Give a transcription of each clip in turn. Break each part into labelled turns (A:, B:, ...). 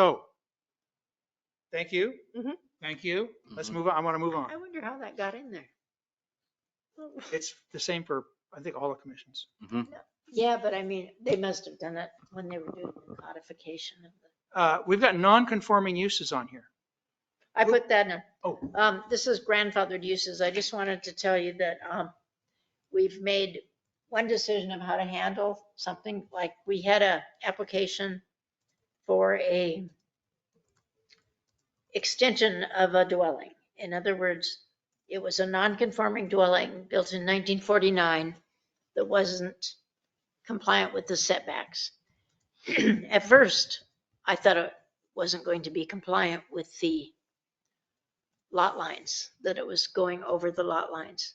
A: Oh.
B: Thank you.
C: Mhm.
B: Thank you. Let's
A: Mhm.
B: move on. I want to move on.
C: I wonder how that got in there.
B: It's the same for, I think, all the commissions.
C: Yeah, but I mean, they must have done it when they were doing the codification of the,
B: Uh, We've got non-conforming uses on here.
C: I put that in.
B: Oh.
C: Um, this is grandfathered uses. I just wanted to tell you that, um, we've made one decision of how to handle something like we had a application for a extension of a dwelling. In other words, it was a non-conforming dwelling built in 1949 that wasn't compliant with the setbacks. At first, I thought it wasn't going to be compliant with the lot lines, that it was going over the lot lines.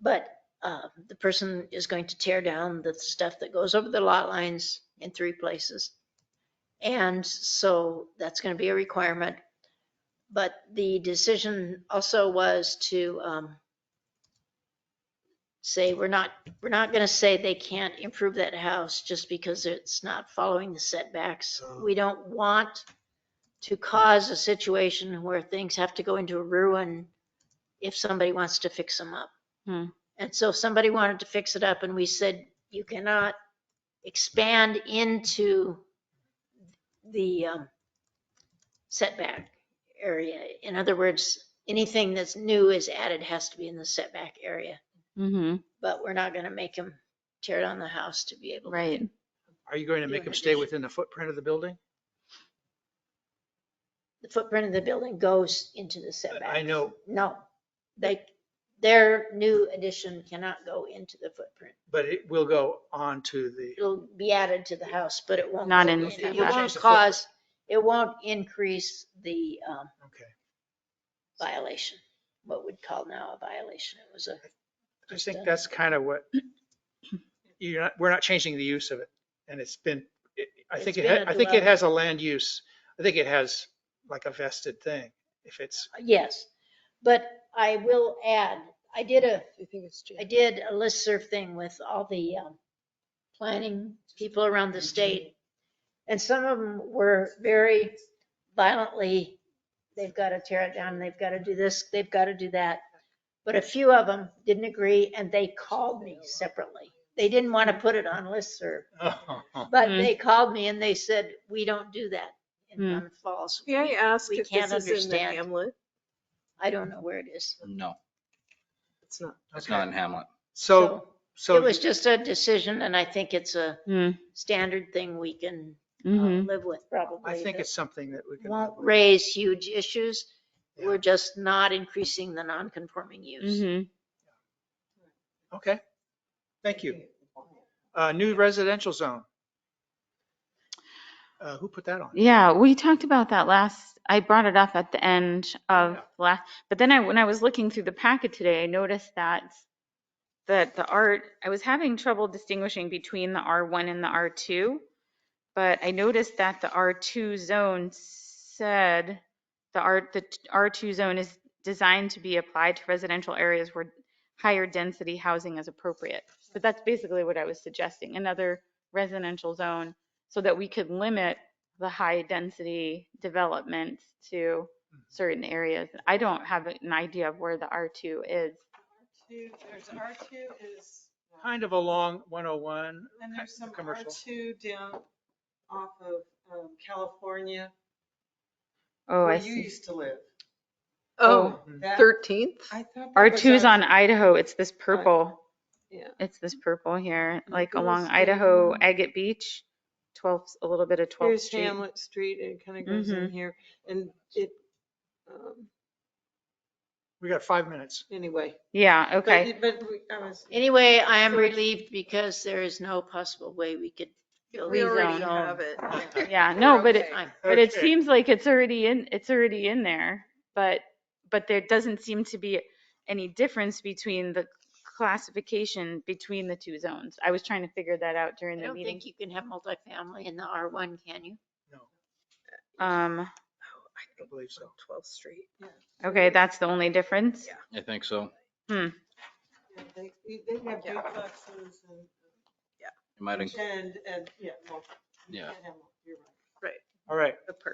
C: But uh, the person is going to tear down the stuff that goes over the lot lines in three places. And so that's going to be a requirement. But the decision also was to um, say, we're not, we're not going to say they can't improve that house just because it's not following the setbacks. We don't want to cause a situation where things have to go into ruin if somebody wants to fix them up.
D: Hmm.
C: And so if somebody wanted to fix it up and we said, you cannot expand into the um, setback area. In other words, anything that's new is added has to be in the setback area,
D: Mm-hmm.
C: but we're not going to make them tear down the house to be able. to
D: Right.
B: Are you going to
C: You
B: make
C: have
B: them
C: an
B: stay
C: issue.
B: within the footprint of the building?
C: the footprint of the building goes into the setback.
B: I know.
C: No, they, their new addition cannot go into the footprint.
B: But it will go on to the,
C: It'll be added to the house, but it won't.
D: Not
C: go
D: in the
C: It
B: setback.
C: won't cause, it won't increase the um,
B: okay.
C: violation, what we'd call now a violation. It was a,
B: I
C: Just
B: think
C: a-
B: that's kind of what, you're not, we're not changing the use of it. And it's been, it- I think,
C: It's
B: it.
C: been
B: ha-
C: a
B: I think it
C: dwelling.
B: has a land use. I think it has like a vested thing. If it's,
C: yes. But I will add, I did a
E: Do you think it's June?
C: I did a listserv thing with all the um, planning people around the state. And some of them were very violently, they've got to tear it down, they've got to do this, they've got to do that. But a few of them didn't agree and they called me separately. They didn't want to put it on listserv, but
D: Hmm.
C: they called me and they said, we don't do that in
D: Hmm.
C: Mount Falls.
E: May I ask
C: we
E: if
C: can't
E: this is in the
C: understand.
E: hamlet?
C: I don't know where it is.
A: No,
E: It's not.
A: it's not in Hamlet.
B: so,
C: It
B: so
C: was just a decision and I think it's a standard thing we can uh,
D: Hmm. Mm-hmm.
C: live with probably.
B: I think
C: that
B: it's something that we can.
C: Won't raise huge issues.
B: Yeah.
C: We're just not increasing the non-conforming use.
D: Mm-hmm.
B: Okay. Thank you. Uh, new residential zone. Uh, who put that on?
D: Yeah, we talked about that last, I brought it up at the end of
B: Yeah.
D: last, but then I, when I was looking through the packet today, I noticed that that the art, I was having trouble distinguishing between the R1 and the R2. But I noticed that the R2 zone said the R, the R2 zone is designed to be applied to residential areas where higher density housing is appropriate. But that's basically what I was suggesting, another residential zone so that we could limit the high density developments to certain areas. I don't have an idea of where the R2 is.
F: Two, there's R two is,
B: Kind of along 101.
F: and there's some R
B: Commercial.
F: two down off of um, California,
D: Oh,
F: where
D: I
F: you
D: see.
F: used to live.
E: Oh,
B: Hmm.
F: That-
E: 13th?
F: I thought. that was
D: R2's
F: our-
D: on Idaho. It's this purple.
E: Yeah.
D: It's this purple here,
E: And
D: like
E: goes
D: along
E: down.
D: Idaho, Agate Beach, 12th, a little bit of 12th
F: Here's
D: Street.
F: Hamlet Street, and it kind of goes
B: Mm-hmm.
F: in here, and it, um,
B: We got five minutes.
F: anyway.
D: Yeah,
F: But
D: okay.
F: it- But we- I was,
C: Anyway, I am relieved because there is no possible way we could build.
E: We already
D: Rezone.
E: have it.
D: Yeah, no,
E: We're
D: but it,
E: okay.
C: I'm-
D: but it
B: Okay.
D: seems like it's already in, it's already in there. But, but there doesn't seem to be any difference between the classification between the two zones. I was trying to figure that out
C: I
D: during the
C: don't
D: meeting.
C: think you can have multifamily in the R1, can you?
D: Um,
B: I don't believe so.
E: 12th Street.
D: okay, that's the only difference.
E: Yeah.
A: I think so.
F: yeah, they, they have
E: Yeah.
F: duplexes and,
A: It might, inc-
F: and, and, yeah, well, you
A: Yeah.
F: can't have, them. you're right.
B: All right.
E: The perk.